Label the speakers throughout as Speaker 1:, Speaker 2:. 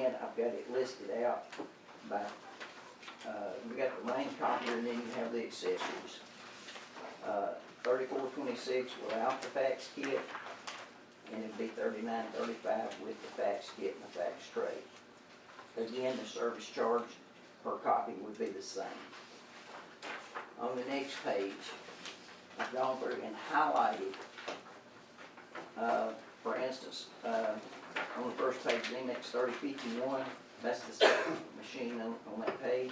Speaker 1: I've got it listed out by, uh, we got the main copier and then you have the accessories. Uh, thirty-four twenty-six without the fax kit, and it'd be thirty-nine thirty-five with the fax kit and the fax tray. Again, the service charge per copy would be the same. On the next page, I've gone through and highlighted, uh, for instance, uh, on the first page, NX thirty fifty-one, that's the second machine on, on that page.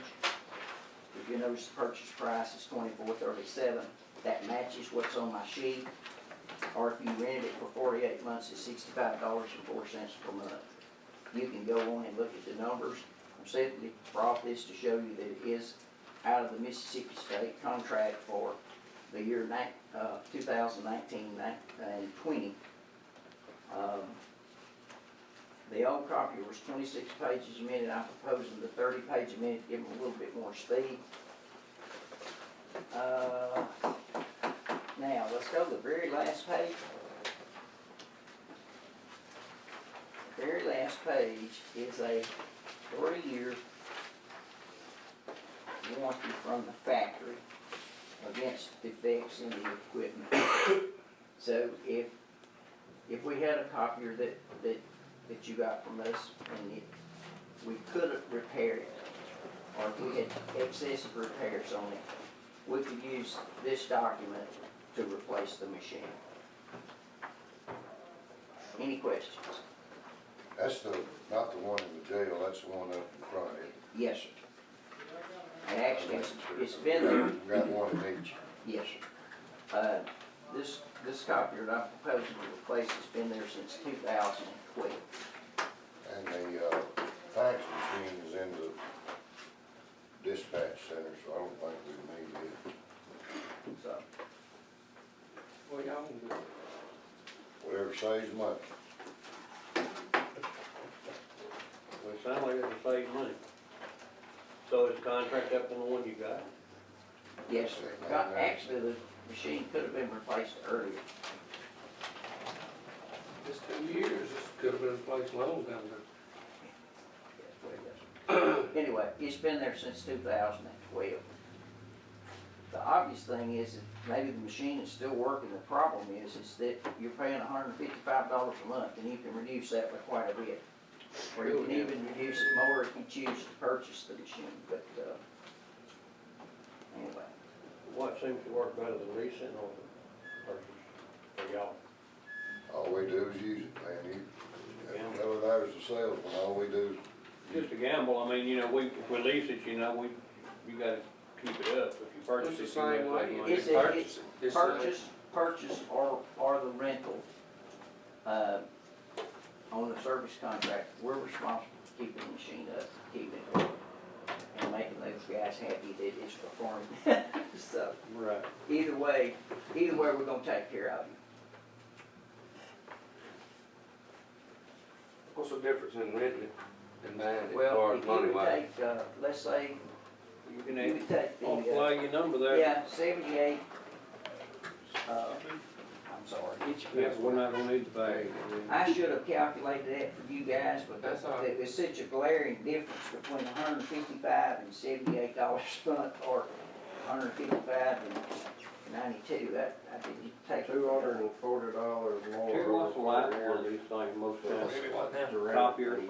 Speaker 1: If you notice, the purchase price is twenty-four thirty-seven, that matches what's on my sheet. Or if you rented it for forty-eight months, it's sixty-five dollars and four cents per month. You can go on and look at the numbers. I'm simply brought this to show you that it is out of the Mississippi State contract for the year nine, uh, two thousand nineteen, and twenty. Um, the old copy was twenty-six pages a minute, I'm proposing the thirty page a minute, give them a little bit more speed. Uh, Now, let's go to the very last page. Very last page is a three-year warranty from the factory against defects in the equipment. So if, if we had a copier that, that that you got from us, and it, we couldn't repair it, or if we had excessive repairs on it, we could use this document to replace the machine. Any questions?
Speaker 2: That's the, not the one in the jail, that's the one up in front of it.
Speaker 1: Yes, sir. And actually, it's- it's been there,
Speaker 2: We Got one in each.
Speaker 1: yes, sir. Uh, this, this copier that I'm proposing to replace has been there since two thousand and twelve.
Speaker 2: And the, uh, fax machine is in the dispatch center, so I don't think we need it.
Speaker 1: So,
Speaker 3: Well, y'all can do it.
Speaker 2: Whatever saves money.
Speaker 3: Well, it sounds like it'll save money. So is the contract up on the one you got?
Speaker 1: yes, sir. Got- Actually, the machine could have been replaced earlier.
Speaker 4: Just two years, this could have been placed long down there.
Speaker 1: Anyway, it's been there since two thousand and twelve. The obvious thing is that maybe the machine is still working, the problem is, is that you're paying hundred and fifty-five dollars a month, and you can reduce that by quite a bit. Or you can even reduce it more if you choose to purchase the machine, but, uh, anyway,
Speaker 3: What seems to work better, the leasing or the purchase for y'all?
Speaker 2: All we do is use it, man. You, whether there's a salesman, all we do is
Speaker 3: Just a gamble, I mean, you know, we, if we lease it, you know, we, you gotta keep it up. If you purchase
Speaker 4: It's
Speaker 3: it,
Speaker 4: the
Speaker 3: you
Speaker 4: same
Speaker 3: make
Speaker 4: way.
Speaker 3: money.
Speaker 1: It's
Speaker 4: If you
Speaker 1: a-
Speaker 4: purchase it, it's the-
Speaker 1: purchase, purchase or, or the rental, uh, on a service contract, we're responsible for keeping the machine up, keeping it working, and making those guys happy that it's performing. So,
Speaker 3: Right.
Speaker 1: either way, either way, we're gonna take care of you.
Speaker 4: What's the difference in renting it and buying it as
Speaker 1: Well,
Speaker 4: far
Speaker 1: if
Speaker 4: as
Speaker 1: you
Speaker 4: money
Speaker 1: would
Speaker 4: wise?
Speaker 1: take, uh, let's say,
Speaker 3: You can
Speaker 1: you
Speaker 3: add,
Speaker 1: would take
Speaker 3: oh,
Speaker 1: the, uh,
Speaker 3: play your number there.
Speaker 1: yeah, seventy-eight, uh, I'm sorry.
Speaker 3: Each, yeah, we're not gonna need the bag.
Speaker 1: I should have calculated that for you guys, but
Speaker 4: That's all right.
Speaker 1: it was such a glaring difference between hundred and fifty-five and seventy-eight dollars a month, or hundred and fifty-five and ninety-two, that, I didn't take.
Speaker 5: Two hundred and forty dollars more.
Speaker 3: Terry, what's the last one of these things most times? Copier.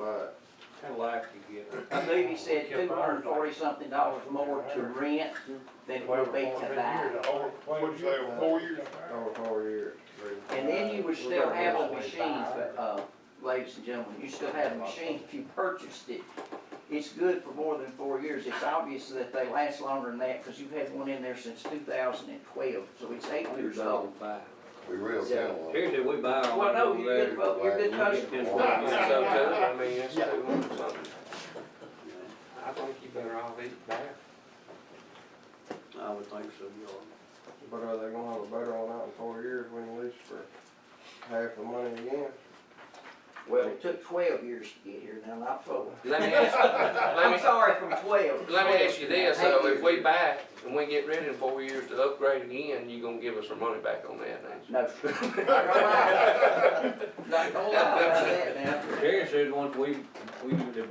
Speaker 3: Kinda like you get.
Speaker 1: I believe he said two hundred and forty something dollars more to rent than it would be to buy.
Speaker 5: What'd you say, four years? Over four years.
Speaker 1: And then you would still have a machine, uh, ladies and gentlemen, you still have a machine if you purchased it. It's good for more than four years. It's obvious that they last longer than that because you've had one in there since two thousand and twelve, so it's eight years old.
Speaker 2: We real gentle.
Speaker 3: Terry, did we buy our?
Speaker 1: Well, no, you're good,
Speaker 3: letter?
Speaker 1: vote. you're good
Speaker 3: Ten
Speaker 1: customer.
Speaker 3: bucks.
Speaker 4: So too, I mean, that's two hundred something. I think you better all leave it there.
Speaker 3: I would think so, you are.
Speaker 5: But are they gonna have a better one out in four years when you lease for half the money again?
Speaker 1: Well, it took twelve years to get here, now not four.
Speaker 4: Let me ask,
Speaker 1: I'm sorry, from twelve.
Speaker 4: let me ask you this,
Speaker 1: Eight
Speaker 4: so if we
Speaker 1: years.
Speaker 4: buy it and we get rid in four years to upgrade again, you gonna give us our money back on that, ain't you?
Speaker 1: No, sir. Not gonna lie. Not gonna lie about that now.
Speaker 3: Terry said once we, we